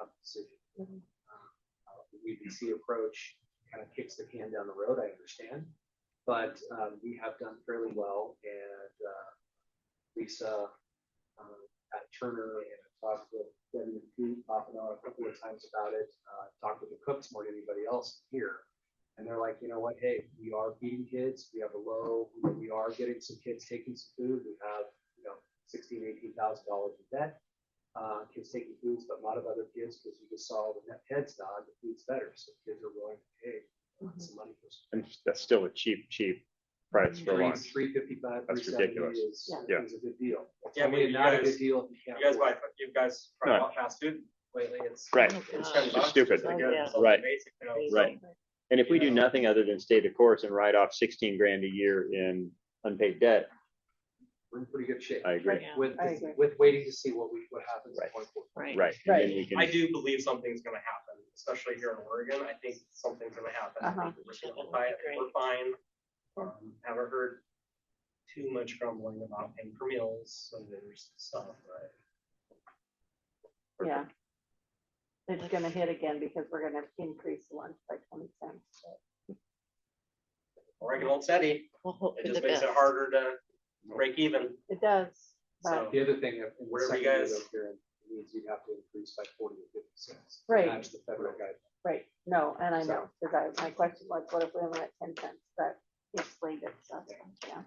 Um, CPC approach kind of kicks the can down the road, I understand. But um, we have done fairly well and uh, Lisa um, at Turner and I talked with Debbie and Pete off and on a couple of times about it. Uh, talked with the cooks more than anybody else here. And they're like, you know what? Hey, we are feeding kids. We have a low, we are getting some kids taking some food. We have, you know, sixteen, eighteen thousand dollars in debt. Uh, kids taking foods, but a lot of other kids, because you just saw the net heads nod, the food's better. So kids are willing to pay some money for some. And that's still a cheap, cheap price for Three, lunch. three fifty-five, three That's seventy ridiculous. is, Yeah. is a good deal. It's Yeah, I mean, only you not a guys- good deal if you can't. You guys afford buy, it. you guys try No. out fast food lately, it's. Right. Oh, It's gosh. ten It's bucks, stupid. it's like, yeah, it's Right. basic, you know, Crazy. Right. And if we do nothing other than stay the course and write off sixteen grand a year in unpaid debt, We're in pretty good shape I agree. Yeah, with, I agree. with waiting to see what we, what happens. in Right. 24. Right. Right. And then we I can, do believe something's gonna happen, especially here in Oregon. I think something's gonna happen. I think We're simplified, I think we're fine. Um, Haven't heard too much grumbling about paying for meals, so there's stuff, right? Yeah. It's gonna hit again because we're gonna increase lunch by twenty cents. Oregon old steady, We'll hope it for the just makes best. it harder to break even, It does, so. but, The other thing, if, in the Wherever second you year guys- up here, it means you'd have to increase by forty or fifty cents. to Right. Match the federal guide. right, no, and I know, So- because I, my question was, what if we only at ten cents, but it's slated, so, yeah.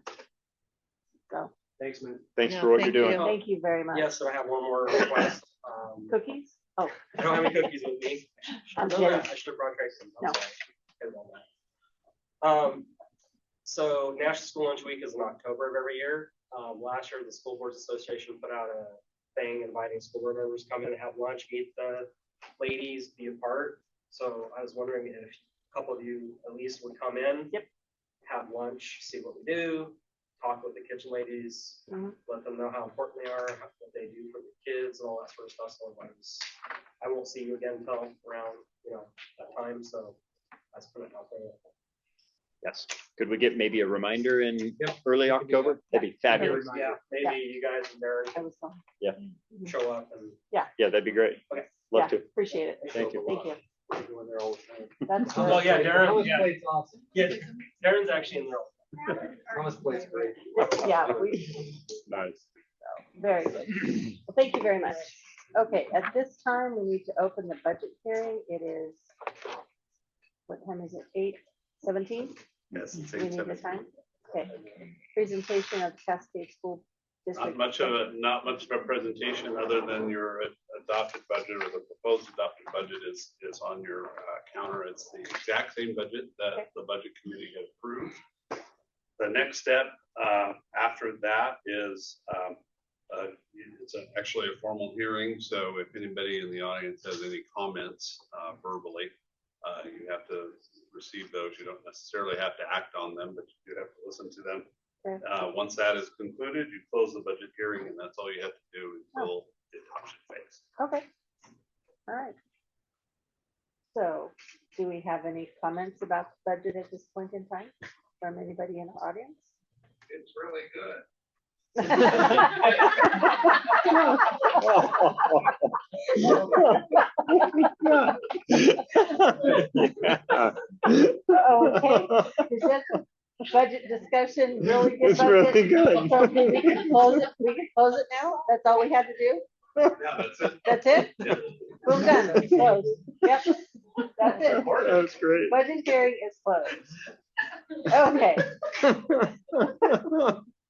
So, Thanks, man. thanks No, for what thank you're doing. you. thank you very much. Yes, and I have one more request. Um, Cookies? Oh, I don't have any cookies with me. I'm No, I kidding. should have brought Tracy's. No. I'm sorry. Good one, Matt. Um, so National School Lunch Week is in October of every year. Um, last year, the School Boards Association put out a thing inviting school board members to come in and have lunch, meet the ladies, be a part. So I was wondering if a couple of you at least would come in. Yep. Have lunch, see what we do, talk with the kitchen ladies, Mhm. let them know how important they are, how- what they do for the kids and all that sort of stuff. So I was, I won't see you again until around, you know, that time, so that's put it out there. Yes. Could we get maybe a reminder in Yep. early October? That'd be fabulous. Yeah, maybe you guys and Darren I was, wrong. can show up and. Yeah, that'd be great. yeah, Okay. Love to. appreciate it, Thank you. thank you. We're doing there all the time. That's Well, great. yeah, Darren, Thomas yeah. Plate's awesome. Yeah, Darren's actually in there. Thomas Plate's great. Yeah, we, Nice. Very good. Well, Thank you very much. Okay, at this time, we need to open the budget hearing. It is, what time is it? Eight seventeen? Yes, it's Do we eight need the seventeen. time? Okay. Presentation of Cascade School Not District. much of a, not much of a presentation other than your adopted budget or the proposed adopted budget is, is on your uh, counter. It's the exact same budget Okay. that the budget committee had approved. The next step uh, after that is, um, uh, it's a- actually a formal hearing. So if anybody in the audience has any comments uh, verbally, uh, you have to receive those. You don't necessarily have to act on them, but you do have to listen to them. Uh, once that is concluded, you close the budget hearing and that's all you have to do until the adoption phase. Okay. All right. So do we have any comments about the budget at this point in time from anybody in the audience? It's really good. Okay, is that the budget discussion, really good It's really budget? good. So We can close it, we can close it now? That's all we had to do? Yeah, that's it. That's it? Yeah. We're done, closed. Yep, that's it. That's great. Budget hearing is closed. Okay,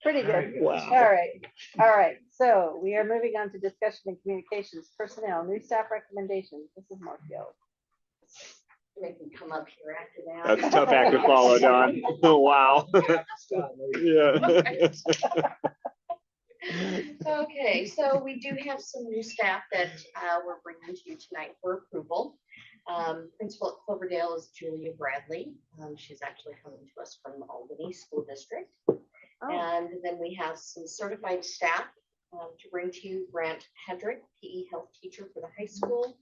pretty good. All Wow. right, all right. So we are moving on to discussion and communications, personnel, new staff recommendations. This is Markfield. They can come up here after that. That's a tough act to follow, Don. Wow. Yeah. Okay, so we do have some new staff that uh, we're bringing to you tonight for approval. Um, Principal at Cloverdale is Julia Bradley. Um, She's actually coming to us from Albany School District. Oh, And then we have some certified staff um, to bring to you Grant Hedrick, PE health teacher for the high school,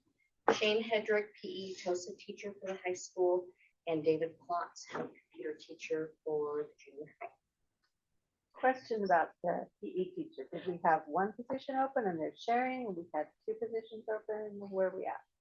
Shane Hedrick, PE TOSA teacher for the high school, and David Plotz, head computer teacher for the junior high. question about the E PE teacher. Did we have one position open and they're sharing? We had two positions open. Where are we at?